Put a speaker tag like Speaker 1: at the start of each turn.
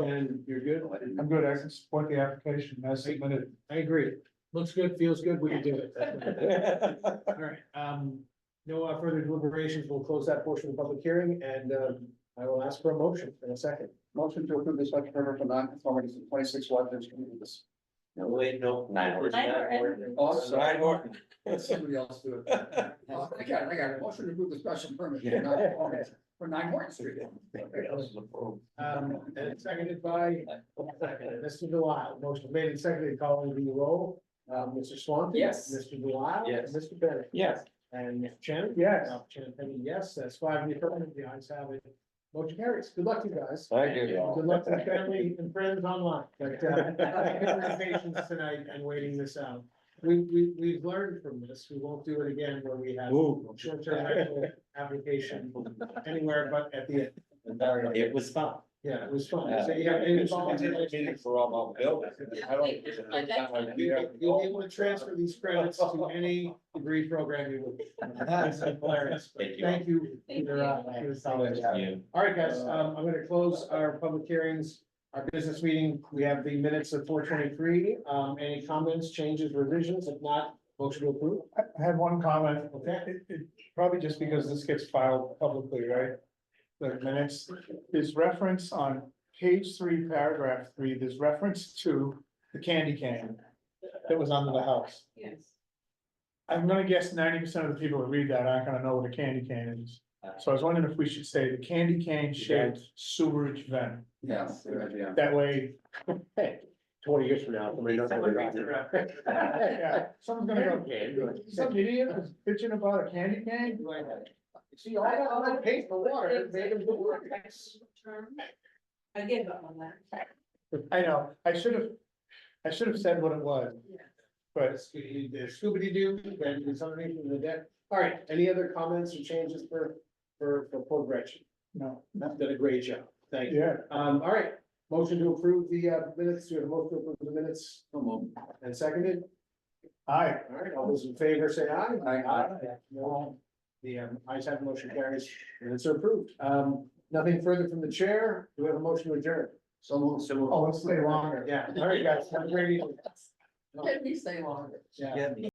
Speaker 1: And you're good?
Speaker 2: I'm good, I can support the application as submitted.
Speaker 1: I agree. Looks good, feels good, we can do it. All right, um, no uh, further deliberations, we'll close that portion of the public hearing and, um, I will ask for a motion in a second.
Speaker 3: Motion to approve the special permit for non-conformities in twenty-six Watertown Street.
Speaker 4: No, wait, no. Nine
Speaker 5: Horton. Nine Horton.
Speaker 3: Oh, I'm sorry.
Speaker 4: Nine Horton.
Speaker 3: Let somebody else do it. Oh, I got it, I got it. Motion to approve the special permit for non-conformities for nine Horton Street.
Speaker 1: Um, and seconded by, Mr. Delisle, motion made and seconded, calling the roll. Uh, Mr. Swanton?
Speaker 3: Yes.
Speaker 1: Mr. Delisle?
Speaker 4: Yes.
Speaker 1: Mr. Bennett?
Speaker 4: Yes.
Speaker 1: And Mr. Chen?
Speaker 2: Yes.
Speaker 1: Uh, Chen, I mean, yes, that's five in the affirmative, the ayes have it. Motion carries. Good luck to you guys.
Speaker 4: Thank you.
Speaker 1: Good luck to the family and friends online, but, uh, thank you for your patience tonight and waiting this out. We, we, we've learned from this, we won't do it again where we have short-term rental application anywhere but at the end.
Speaker 4: It was fun.
Speaker 1: Yeah, it was fun. So you have any volunteer-
Speaker 4: For all my buildings. I don't-
Speaker 5: Just like that.
Speaker 1: You'll be you'll be able to transfer these credits to any degree program you would. That's hilarious.
Speaker 4: Thank you.
Speaker 1: Thank you. for your, uh, for your solidarity. All right,
Speaker 2: Uh,
Speaker 1: guys, um, I'm gonna close our public hearings, our business meeting. We have the minutes of four twenty-three. Um, any comments, changes, revisions? If not, motion to approve.
Speaker 2: I I have one comment,
Speaker 1: Okay.
Speaker 2: It- it- probably just because this gets filed publicly, right? The minutes, there's reference on page three, paragraph three, there's reference to the candy cane that was under the house.
Speaker 5: Yes.
Speaker 2: I'm gonna guess ninety percent of the people that read that aren't gonna know what a candy cane is. So I was wondering if we should say the candy cane shaped sewerage vent,
Speaker 3: Yes, good idea.
Speaker 2: that way,
Speaker 4: Twenty years from now, somebody doesn't.
Speaker 2: yeah, someone's gonna go, some idiot was bitching about a candy cane?
Speaker 1: See, all that, all that paint in the water, it made them do work.
Speaker 5: I gave up on that.
Speaker 2: I know, I should have, I should have said what it was, but
Speaker 1: Scooby Doo, and it's underneath the deck. All right, any other comments or changes for, for, for poor Gretchen?
Speaker 2: no,
Speaker 1: You've Done a great job. Thank you.
Speaker 2: yeah,
Speaker 1: Um, all right, motion to approve the uh, minutes, to have a motion to approve the minutes
Speaker 3: So moved.
Speaker 1: and seconded.
Speaker 2: I,
Speaker 1: All right, all those in favor say aye.
Speaker 3: Aye.
Speaker 1: No, the um, ayes have the motion carries, and it's approved. Um, nothing further from the chair, do we have a motion to adjourn?
Speaker 3: So moved.
Speaker 2: oh, let's stay longer.
Speaker 1: Yeah, all right, guys, have a great evening.
Speaker 3: Let me stay longer.
Speaker 1: Yeah.